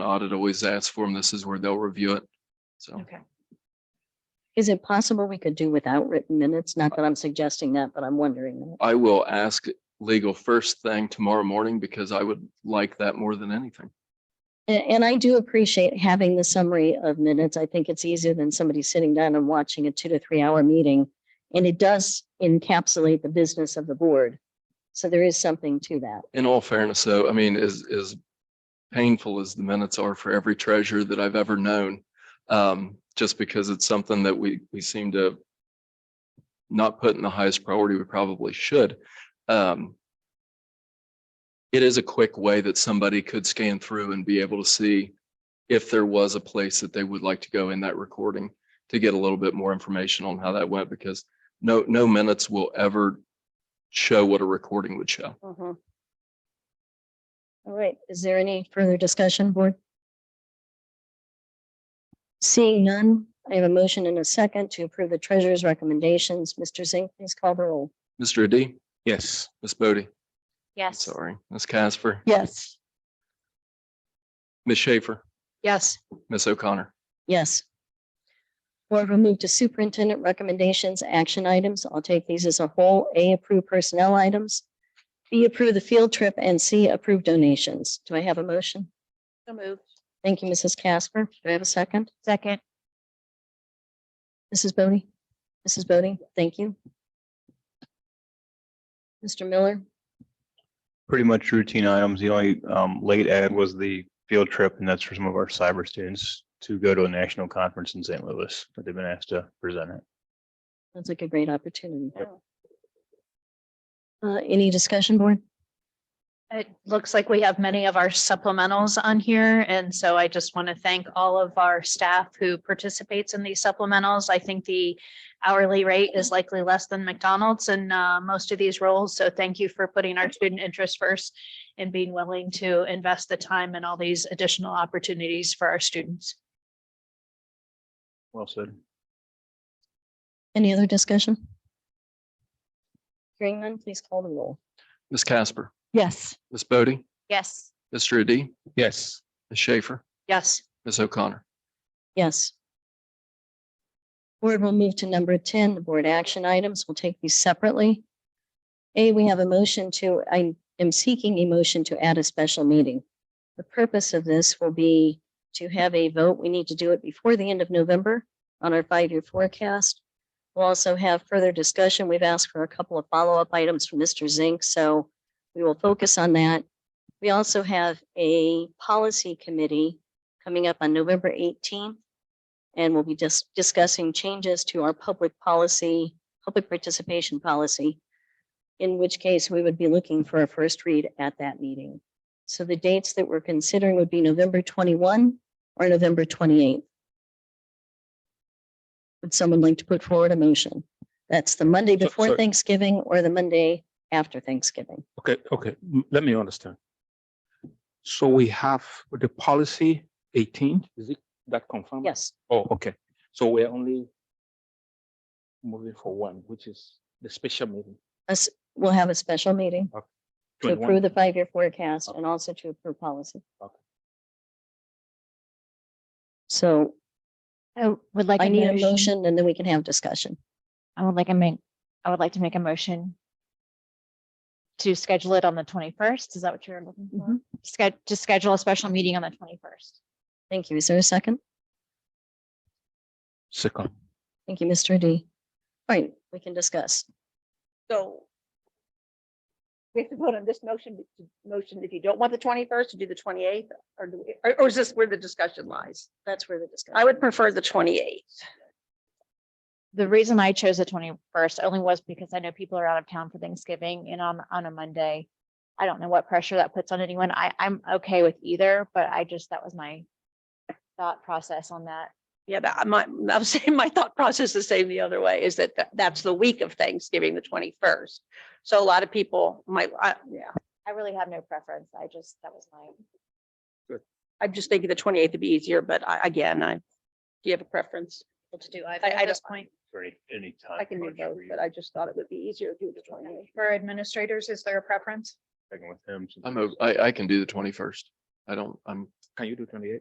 an audit always asks for them. This is where they'll review it. So Okay. Is it possible we could do without written minutes? Not that I'm suggesting that, but I'm wondering that. I will ask legal first thing tomorrow morning because I would like that more than anything. A- And, I do appreciate having the summary of minutes. I think it's easier than somebody sitting down and watching a two to three hour meeting. And it does encapsulate the business of the board. So there is something to that. In all fairness, though, I mean, as, as painful as the minutes are for every treasurer that I've ever known, um, just because it's something that we, we seem to not put in the highest priority we probably should. Um, it is a quick way that somebody could scan through and be able to see if there was a place that they would like to go in that recording to get a little bit more information on how that went, because no, no minutes will ever show what a recording would show. All Uh-huh. right, is there any further discussion, board? Seeing none, I have a motion and a second to approve the treasurer's recommendations. Mr. Zink, please call the roll. Mr. Adi, Yes. Ms. Bodie, Yes. sorry, Ms. Casper, Yes. Ms. Schaefer, Yes. Ms. O'Connor. Yes. Board will move to superintendent recommendations, action items. I'll take these as a whole. A, approve personnel items. B, approve the field trip, and C, approve donations. Do I have a motion? So moved. Thank you, Mrs. Casper. Do I have a second? Second. Mrs. Bodie? Mrs. Bodie, thank you. Mr. Miller? Pretty much routine items. The only um late add was the field trip and that's for some of our cyber students to go to a national conference in St. Louis, but they've been asked to present it. Sounds like a great opportunity. Uh, any discussion, board? It looks like we have many of our supplementals on here, and so I just want to thank all of our staff who participates in these supplementals. I think the hourly rate is likely less than McDonald's in uh, most of these roles, so thank you for putting our student interest first and being willing to invest the time in all these additional opportunities for our students. Well said. Any other discussion? Hearing none, please call the roll. Ms. Casper, Yes. Ms. Bodie, Yes. Mr. Adi, Yes. Ms. Schaefer, Yes. Ms. O'Connor. Yes. Board will move to number ten, the board action items. We'll take these separately. A, we have a motion to, I am seeking a motion to add a special meeting. The purpose of this will be to have a vote. We need to do it before the end of November on our five-year forecast. We'll also have further discussion. We've asked for a couple of follow-up items from Mr. Zink, so we will focus on that. We also have a policy committee coming up on November eighteenth. And we'll be just discussing changes to our public policy, public participation policy. In which case we would be looking for a first read at that meeting. So the dates that we're considering would be November twenty-one or November twenty-eighth. Would someone like to put forward a motion? That's the Monday So- before so- Thanksgiving or the Monday after Thanksgiving. Okay, okay, m- let me understand. So we have the policy eighteen, is it that confirmed? Yes, Oh, okay, so we're only moving for one, which is the special meeting. us, we'll have a special meeting to 21. approve the five-year forecast and also to approve policy. Okay. So I would like. I need a motion and then we can have discussion. I would like a make, I would like to make a motion to schedule it on the twenty-first. Is that what you're looking Mm-hmm. for? Sched, to schedule a special meeting on the twenty-first. Thank you. Is there a second? Second, Thank you, Mr. D. All right, we can discuss. So we have to vote on this motion, motion, if you don't want the twenty-first, to do the twenty-eighth, or, do we- or- or is this where the discussion lies? That's where the discussion. I would prefer the twenty-eighth. The reason I chose the twenty-first only was because I know people are out of town for Thanksgiving and on, on a Monday. I don't know what pressure that puts on anyone. I, I'm okay with either, but I just, that was my thought process on that. Yeah, that, my, I'm saying my thought process is same the other way, is that tha- that's the week of Thanksgiving, the twenty-first. So a lot of people might, I, yeah, I really have no preference. I just, that was my. I'm just thinking the twenty-eighth would be easier, but I, again, I, do you have a preference? To do either I at this don't- point. For any, any time. I can do crunch both, for you, but I just thought it would be easier to do the twenty-eighth. For administrators, is there a preference? checking with him since I'm, it's- o- I, I can do the twenty-first. I don't, I'm Can you do twenty-eight?